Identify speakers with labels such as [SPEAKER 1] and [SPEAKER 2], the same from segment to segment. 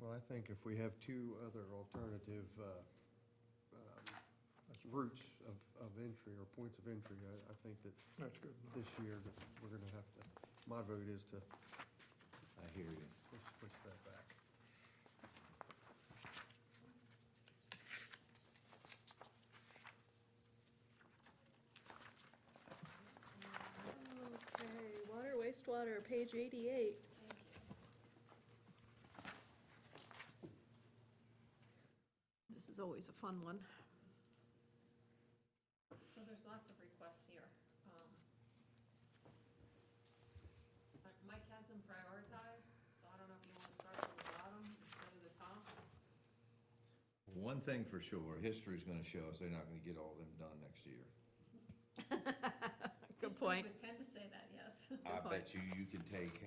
[SPEAKER 1] Well, I think if we have two other alternative uh, um, routes of, of entry or points of entry, I, I think that
[SPEAKER 2] That's good enough.
[SPEAKER 1] this year, that we're gonna have to, my vote is to,
[SPEAKER 3] I hear you.
[SPEAKER 1] let's push that back.
[SPEAKER 4] Okay, water, wastewater, page eighty-eight. This is always a fun one.
[SPEAKER 5] So there's lots of requests here. Um, uh, Mike has them prioritized, so I don't know if you wanna start from the bottom instead of the top.
[SPEAKER 3] One thing for sure, history's gonna show us they're not gonna get all of them done next year.
[SPEAKER 4] Good
[SPEAKER 5] History
[SPEAKER 4] point.
[SPEAKER 5] Would tend to say that, yes.
[SPEAKER 4] Good
[SPEAKER 3] I
[SPEAKER 4] point.
[SPEAKER 3] bet you, you can take,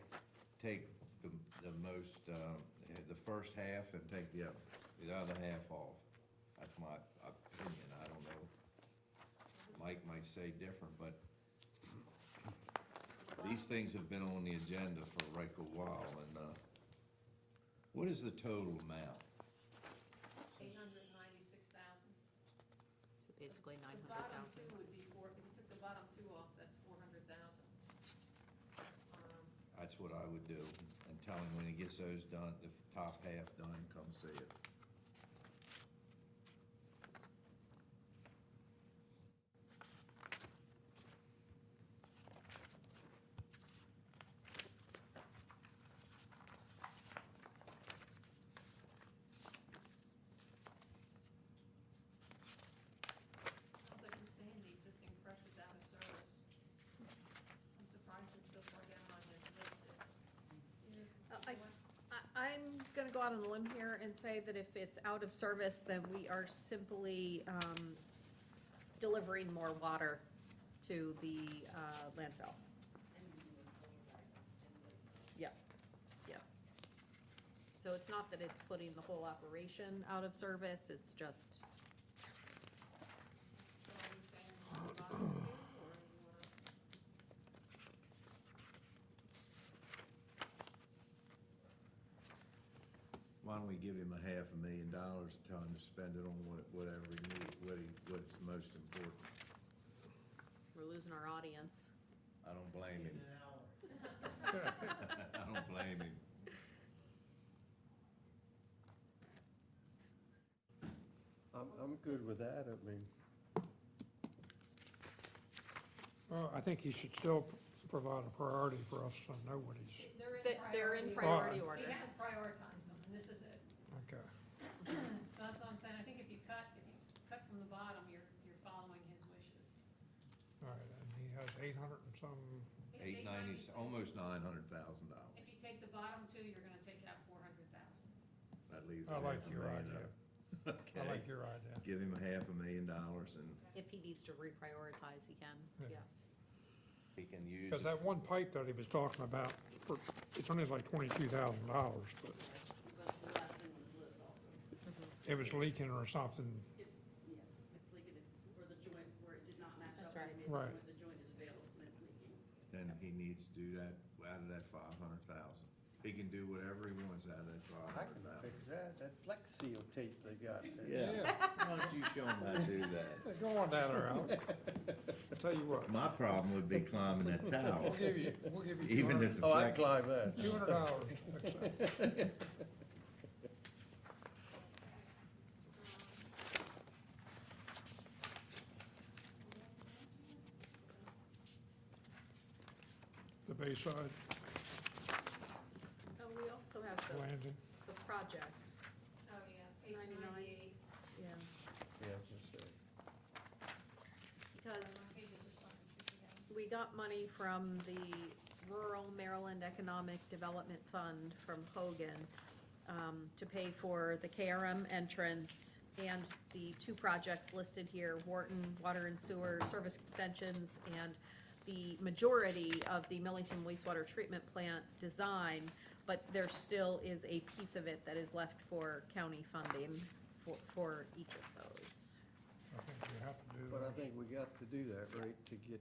[SPEAKER 3] take the, the most, um, the first half and take the, other- the other half off. That's my opinion, I don't know. Mike might say different, but these things have been on the agenda for right a while, and, uh, what is the total amount?
[SPEAKER 5] Eight hundred and ninety-six thousand.
[SPEAKER 4] So basically nine
[SPEAKER 5] The
[SPEAKER 4] hundred
[SPEAKER 5] bottom
[SPEAKER 4] thousand.
[SPEAKER 5] two would be four, if you took the bottom two off, that's four hundred thousand. Um,
[SPEAKER 3] That's what I would do, and tell him when he gets those done, the top half done, come see it.
[SPEAKER 5] Sounds like he's saying the existing press is out of service. I'm surprised it's so far down on his list.
[SPEAKER 6] Uh, I- I- I'm going to go out on a limb here and say that if it's out of service, then we are simply um, delivering more water to the uh, landfill. So it's not that it's putting the whole operation out of service, it's just,
[SPEAKER 5] So are you saying on the bottom two, or you wanna?
[SPEAKER 3] Why don't we give him a half a million dollars, and tell him to spend it on what- whatever he needs, what he, what's most important?
[SPEAKER 6] we're losing our audience.
[SPEAKER 3] I don't blame him. I don't blame him.
[SPEAKER 1] I'm, I'm good with that, I mean,
[SPEAKER 2] Well, I think he should still provide a priority for us to know what he's,
[SPEAKER 5] They're in
[SPEAKER 6] They-
[SPEAKER 5] priority.
[SPEAKER 6] They're in
[SPEAKER 2] prior-
[SPEAKER 6] priority
[SPEAKER 2] Alright.
[SPEAKER 6] order.
[SPEAKER 5] He has prioritized them, and this is it.
[SPEAKER 2] okay.
[SPEAKER 5] So that's what I'm saying, I think if you cut, if you cut from the bottom, you're, you're following his wishes.
[SPEAKER 2] All right, and he has eight hundred and some,
[SPEAKER 5] It's
[SPEAKER 3] Eight ninety,
[SPEAKER 5] 896.
[SPEAKER 3] almost nine hundred thousand dollars.
[SPEAKER 5] If you take the bottom two, you're gonna take out four hundred thousand.
[SPEAKER 3] That leaves.
[SPEAKER 2] I
[SPEAKER 3] half
[SPEAKER 2] like
[SPEAKER 3] a
[SPEAKER 2] your idea.
[SPEAKER 3] million
[SPEAKER 2] I
[SPEAKER 3] up. Okay,
[SPEAKER 2] like your idea.
[SPEAKER 3] give him a half a million dollars and
[SPEAKER 6] If he needs to reprioritize, he can, yeah.
[SPEAKER 2] Yeah.
[SPEAKER 3] he can use
[SPEAKER 2] Because
[SPEAKER 3] it.
[SPEAKER 2] that one pipe that he was talking about, for, it's only like twenty-two thousand dollars, but
[SPEAKER 7] But the last thing was lit also.
[SPEAKER 2] it was leaking or something.
[SPEAKER 7] It's, yes, it's leaking it- where the joint, where it did not match up.
[SPEAKER 6] That's right.
[SPEAKER 7] and it-
[SPEAKER 2] Right.
[SPEAKER 7] Where the joint is failed and it's leaking.
[SPEAKER 3] Then he needs to do that out of that five hundred thousand. He can do whatever he wants out of that five
[SPEAKER 1] I can
[SPEAKER 3] hundred thousand.
[SPEAKER 1] fix that, that flex seal tape they got. there.
[SPEAKER 3] Why don't you show him how to do that?
[SPEAKER 2] Go on down there, Al. I tell you what,
[SPEAKER 3] My problem would be climbing that tower,
[SPEAKER 2] we'll give you, we'll give you two
[SPEAKER 3] even if
[SPEAKER 2] hundred,
[SPEAKER 3] the
[SPEAKER 1] Oh, I can
[SPEAKER 3] flex.
[SPEAKER 1] climb that.
[SPEAKER 2] two hundred dollars.
[SPEAKER 5] Oh,
[SPEAKER 2] The Bayside
[SPEAKER 6] Oh, we also have the,
[SPEAKER 2] landing,
[SPEAKER 6] the projects,
[SPEAKER 5] Oh, yeah, page
[SPEAKER 6] 99.
[SPEAKER 5] ninety-eight.
[SPEAKER 6] yeah,
[SPEAKER 1] Yeah, I was gonna say.
[SPEAKER 5] Oh, My
[SPEAKER 6] because
[SPEAKER 5] pages are starting to together.
[SPEAKER 6] We got money from the Rural Maryland Economic Development Fund from Hogan um, to pay for the KRM entrance and the two projects listed here, Wharton Water and Sewer Service Extensions and the majority of the Millington wastewater treatment plant design, but there still is a piece of it that is left for county funding for, for each of those.
[SPEAKER 2] I think we have to do that.
[SPEAKER 1] But I think we got to do that, right, to get,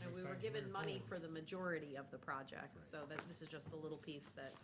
[SPEAKER 6] And we were
[SPEAKER 2] Thanks,
[SPEAKER 6] given
[SPEAKER 2] Mayor
[SPEAKER 6] money
[SPEAKER 2] Ford.
[SPEAKER 6] for the majority of the project, so that, this is just the little piece that